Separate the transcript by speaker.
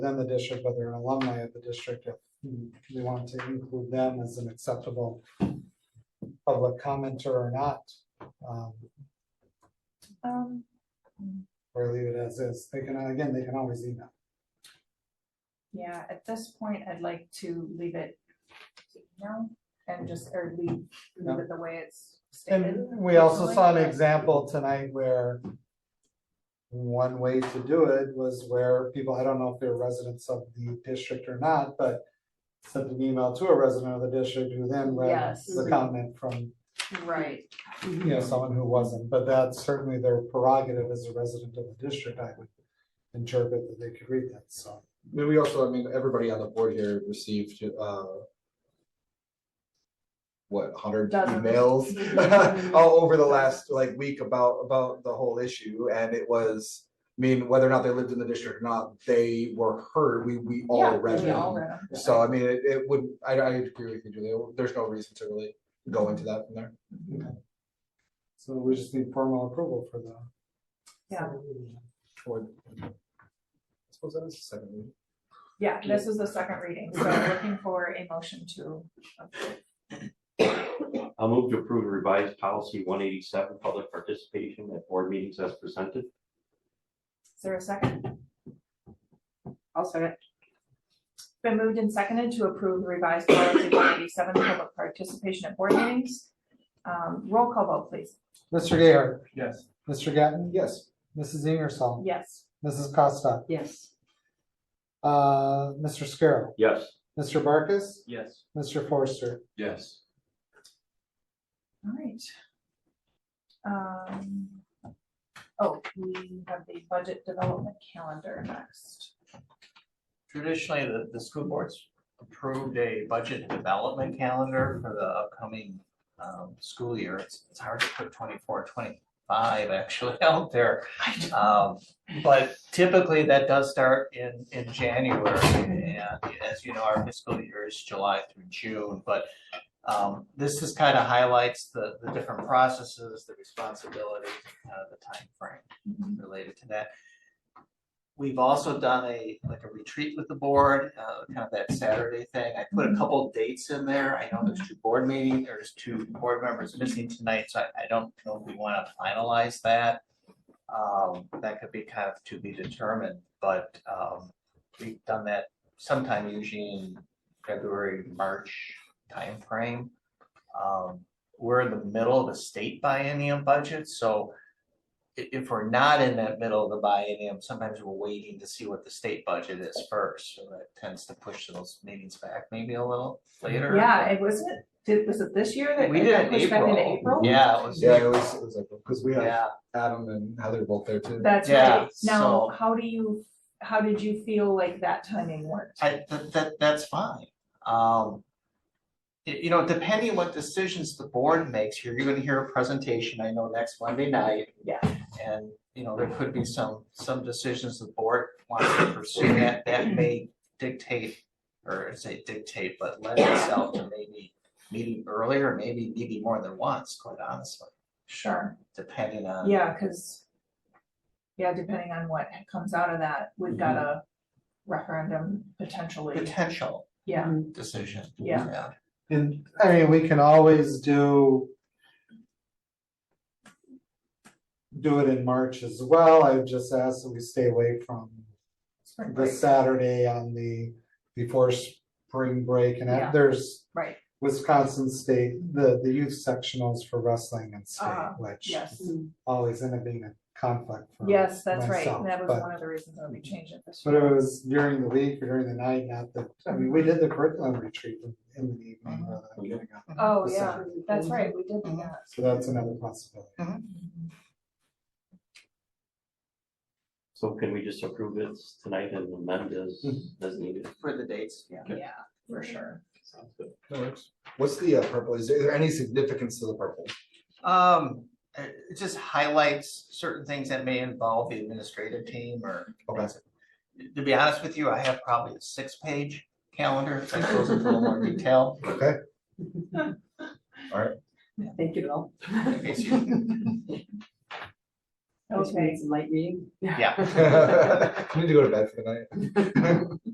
Speaker 1: within the district, but they're an alumni of the district, if we want to include them as an acceptable public commenter or not, um,
Speaker 2: Um,
Speaker 1: or leave it as is. They can, again, they can always email.
Speaker 2: yeah, at this point, I'd like to leave it, no, and just, or leave, leave it the way it's stated.
Speaker 1: And we also saw an
Speaker 2: personally, but-
Speaker 1: example tonight where one way to do it was where people, I don't know if they're residents of the district or not, but sent an email to a resident of the district who then read
Speaker 2: Yes.
Speaker 1: the comment from
Speaker 2: Right,
Speaker 1: you know, someone who wasn't, but that's certainly their prerogative as a resident of the district, I would interpret that they could read that, so.
Speaker 3: I mean, we also, I mean, everybody on the board here received, uh. What, hundred
Speaker 2: Dozens.
Speaker 3: emails all over the last like week about, about the whole issue and it was. I mean, whether or not they lived in the district or not, they were heard, we, we all
Speaker 2: yeah,
Speaker 3: read
Speaker 2: we all
Speaker 3: them.
Speaker 2: read them.
Speaker 3: So I mean, it, it would, I, I agree with you, Julia, there's no reason to really go into that from there.
Speaker 1: So we just need formal approval for the.
Speaker 2: Yeah.
Speaker 3: Or- I Suppose that is the second reading.
Speaker 2: Yeah, this is the second reading, so looking for a motion to,
Speaker 4: I'll move to approve revised policy one eighty-seven, public participation at board meetings as presented.
Speaker 2: is there a second?
Speaker 5: I'll second.
Speaker 2: Been moved and seconded to approve the revised policy one eighty-seven, public participation at board meetings. Um, roll call vote, please.
Speaker 1: Mr. Gayheart,
Speaker 3: Yes.
Speaker 1: Mr. Gatton,
Speaker 3: Yes.
Speaker 1: Mrs. Ingersoll,
Speaker 2: Yes,
Speaker 1: Mrs. Costa,
Speaker 5: Yes.
Speaker 1: uh, Mr. Scarrow,
Speaker 4: Yes.
Speaker 1: Mr. Barkus,
Speaker 4: Yes.
Speaker 1: Mr. Forster.
Speaker 3: Yes.
Speaker 2: all right. Um, oh, we have the budget development calendar next.
Speaker 6: Traditionally, the, the school boards approved a budget development calendar for the upcoming um, school year. It's, it's hard to put 24, 25 actually out there. Um, but typically that does start in, in January. And as you know, our fiscal year is July through June, but um, this just kind of highlights the, the different processes, the responsibilities, uh, the timeframe related to that. We've also done a, like a retreat with the board, uh, kind of that Saturday thing. I put a couple of dates in there. I know there's two board meetings, there's two board members missing tonight, so I, I don't know if we want to finalize that. Um, that could be kind of to be determined, but, um, we've done that sometime usually in February, March timeframe. Um, we're in the middle of a state biennium budget, so i- if we're not in that middle of the biennium, sometimes we're waiting to see what the state budget is first, so that tends to push those meetings back maybe a little later.
Speaker 2: Yeah, it wasn't, did, was it this year that?
Speaker 6: We
Speaker 2: it
Speaker 6: did
Speaker 2: got
Speaker 6: it in
Speaker 2: pushed back into
Speaker 6: April. Yeah, it was,
Speaker 3: Yeah, it was, it was like, because we had
Speaker 6: yeah,
Speaker 3: Adam and Heather both there too.
Speaker 2: That's
Speaker 6: Yeah,
Speaker 2: right. Now,
Speaker 6: so-
Speaker 2: how do you, how did you feel like that timing worked?
Speaker 6: I, that, that, that's fine. Um. y- You know, depending what decisions the board makes, you're gonna hear a presentation, I know, next Monday night.
Speaker 2: Yeah.
Speaker 6: And, you know, there could be some, some decisions the board wants to pursue that, that may dictate, or I say dictate, but lend itself to maybe meeting earlier, maybe meeting more than once, quite honestly,
Speaker 2: Sure,
Speaker 6: depending on.
Speaker 2: yeah, cause. Yeah, depending on what comes out of that, we've got
Speaker 6: Mm-hmm.
Speaker 2: a referendum potentially,
Speaker 6: Potential
Speaker 2: yeah,
Speaker 6: decision.
Speaker 2: Yeah.
Speaker 1: And, I mean, we can always do do it in March as well. I would just ask that we stay away from
Speaker 2: spring
Speaker 1: the
Speaker 2: break,
Speaker 1: Saturday on the, before spring break, and
Speaker 2: Yeah.
Speaker 1: there's
Speaker 2: right,
Speaker 1: Wisconsin State, the, the youth sectionals for wrestling and state,
Speaker 2: Uh-huh,
Speaker 1: which
Speaker 6: Mm-hmm.
Speaker 2: yes.
Speaker 1: always ended up being a conflict for
Speaker 2: Yes, that's right,
Speaker 1: myself,
Speaker 2: that was
Speaker 1: but-
Speaker 2: one of the reasons why we changed it this
Speaker 1: But
Speaker 2: year.
Speaker 1: it was during the week or during the night, not the, I mean, we did the curriculum retreat in- in the evening rather than getting up.
Speaker 2: Oh,
Speaker 1: the
Speaker 2: yeah,
Speaker 1: Saturday.
Speaker 2: that's right, we did do
Speaker 1: Mm-hmm.
Speaker 6: Mhm.
Speaker 2: that.
Speaker 1: So that's another possibility.
Speaker 4: So can we just approve it tonight and amend as, as needed?
Speaker 6: For the dates, yeah.
Speaker 2: Yeah, for sure.
Speaker 4: Sounds good.
Speaker 3: What's the uh, purple? Is there any significance to the purple?
Speaker 6: Um, it it just highlights certain things that may involve the administrative team or.
Speaker 3: Okay.
Speaker 6: To be honest with you, I have probably a six-page calendar that goes into a little more detail.
Speaker 3: Okay,
Speaker 5: Thank you, Bill.
Speaker 6: in case you-
Speaker 7: Which
Speaker 8: Okay.
Speaker 7: means light reading.
Speaker 5: Yeah.
Speaker 3: Need to go to bed for the night.